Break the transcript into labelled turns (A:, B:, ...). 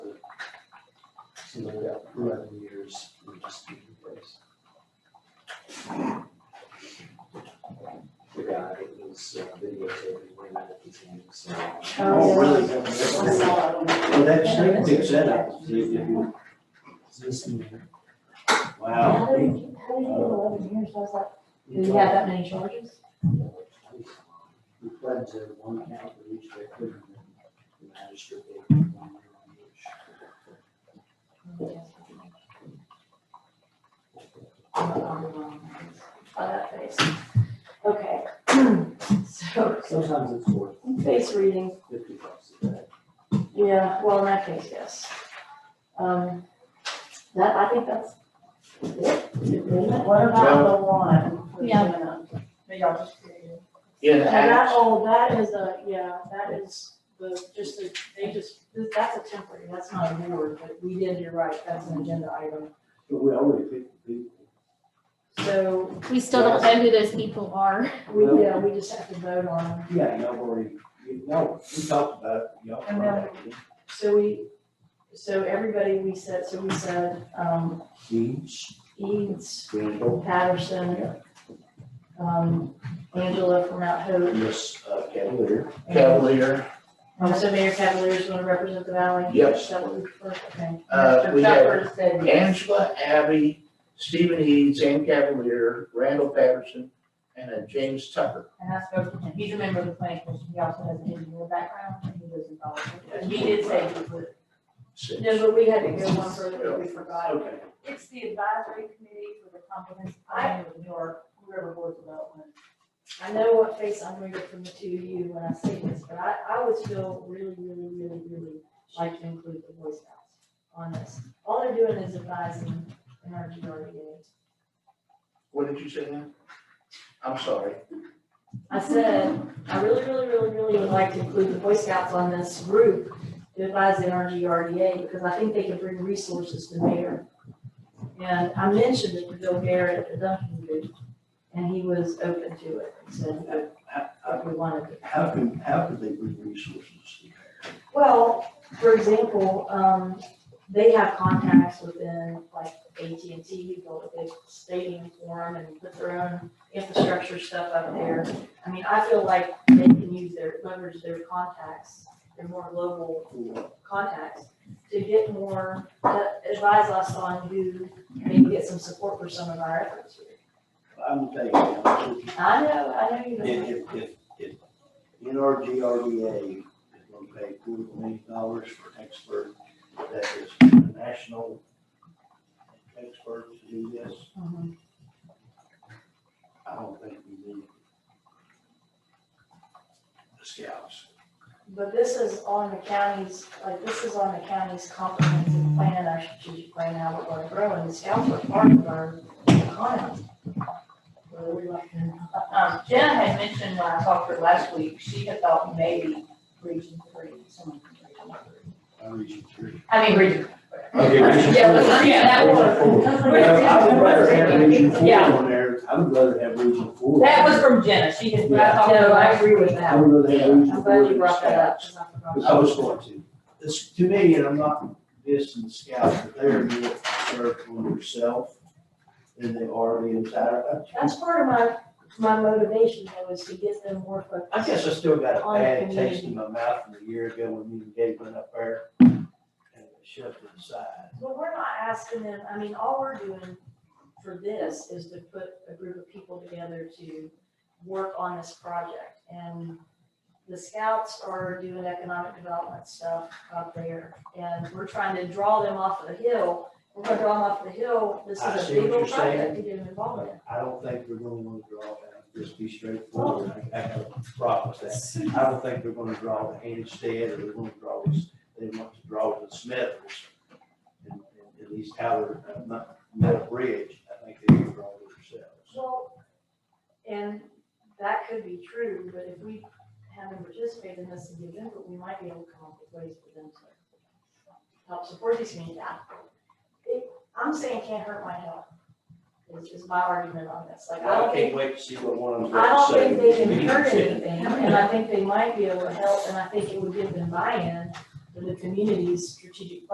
A: you know, that eleven years, we just need to place. The guy was uh, videotaping when that was in, so.
B: Oh, really?
A: Well, that snake picks that up. Is this in-
B: Wow.
C: How did you, how did you get eleven years, I was like, do you have that many charges?
A: We pledged that one count for each victim, and then the magistrate gave them one year on each.
C: By that face. Okay, so,
A: Sometimes it's worth
C: face reading,
A: fifty bucks a day.
C: yeah, well, in that case, yes. Um, that, I think that's it, isn't it?
B: What about the one? for
C: Yeah.
B: Jenna? That y'all just created?
A: Yeah.
C: And that, oh, that is a, yeah, that is the, just a, they just, this- that's a temporary, that's not a board, but we did, you're right, that's an agenda item.
A: But we already picked the people.
C: So,
D: We still don't know who those people are.
C: we, yeah, we just have to vote on them.
A: Yeah, y'all already, you know, we talked about it, y'all.
C: And then- So we, so everybody, we said, so we said, um,
A: Deeds,
C: Eads,
A: Randall,
C: Patterson, um, Angela from Mount Hope.
A: Miss uh, Cavalier.
C: and-
E: Cavalier.
C: Um, so Mayor Cavaliers want to represent the valley?
E: Yes.
C: Is that what we prefer? Okay.
E: Uh, we
C: Chuck
E: have-
C: Bird said yes.
E: Angela, Abby, Stephen Eads, Ann Cavalier, Randall Patterson, and uh, James Tucker.
B: And I spoke to him, he's a member of the planning commission, he also has an engineer background, and he lives in Baldwin. He did say he would.
E: Six.
C: No, but we had to go one further, we forgot.
E: Okay.
B: It's the advisory committee for the comprehensive plan of New York River Board Development.
C: I know what face I'm gonna get from the two of you when I say this, but I, I would feel really, really, really, really like to include the Boy Scouts on this. All they're doing is advising in our GRDA.
E: What did you say now? I'm sorry.
C: I said, I really, really, really, really would like to include the Boy Scouts on this group to advise the NRGRDA because I think they could bring resources to bear. And I mentioned it to Bill Garrett at the Duncan group, and he was open to it, He said, "Oh, if we wanted to.
A: How can, how could they bring resources to there?
C: Well, for example, um, they have contacts within like AT&T, who built a big stadium for them and put their own infrastructure stuff up there. I mean, I feel like they can use their, leverage their contacts, their more global contacts to get more, uh, advise us on who, maybe get some support for some of our efforts here.
A: I'm telling you, I'm thinking,
C: I know, I know you
A: if,
C: don't.
A: if, if, if NRGRDA is gonna pay two million dollars for an expert that is a national expert to do this,
C: Mhm.
A: I don't think we need the scouts.
C: But this is on the county's, like, this is on the county's comprehensive plan, our strategic plan, how we're gonna grow, and the scouts are part of our economy. Whether we like it or not.
B: Um, Jenna had mentioned when I talked to her last week, she had thought maybe region three, someone from region three.
A: I reach three.
B: I mean, region.
A: Okay,
B: Region Yeah, let's Four. read
A: one.
B: that
A: I would rather have region four
B: Yeah.
A: on there, I would rather have region four.
B: That was from Jenna, she had, when I talked to her
C: No, I
B: last
C: agree with
B: week.
C: that.
A: I would rather have region four.
C: I'm glad you
A: than
C: brought that up,
A: scouts.
C: 'cause I
A: Because
C: forgot.
A: I was going to. This, to me, and I'm not dissing the scouts, but they're more concerned on themselves than they are the entire.
C: That's part of my, my motivation though, is to get them more focused.
A: I guess I still got a
C: On
A: bad
C: the
A: taste in my mouth from a year ago when me and Gabe went up there and shoved it aside.
C: But we're not asking them, I mean, all we're doing for this is to put a group of people together to work on this project. And the scouts are doing economic development stuff up there, and we're trying to draw them off of the hill. We're gonna draw them off the hill, this
A: I
C: is a
A: see what
C: big
A: you're
C: old
A: saying.
C: project to get them involved in.
A: I don't think we're gonna wanna draw that, just be straightforward, I I have a problem with that. I don't think they're gonna draw the Handstead, or they're gonna draw this, they want to draw the Smithers. And, and at least how they're, uh, not, metal bridge, I think they can draw it themselves.
C: Well, and that could be true, but if we have them participate in this and give input, we might be able to come up with ways for them to help support these communities. It, I'm saying it can't hurt my health, is, is my argument on this, like, I
A: I
C: don't
A: can't
C: think,
A: wait to see what one of them's
C: I
A: gonna
C: don't
A: say.
C: think they can hurt anything, and I think they might be able to help, and I think it would give them buy-in to the community's strategic plan.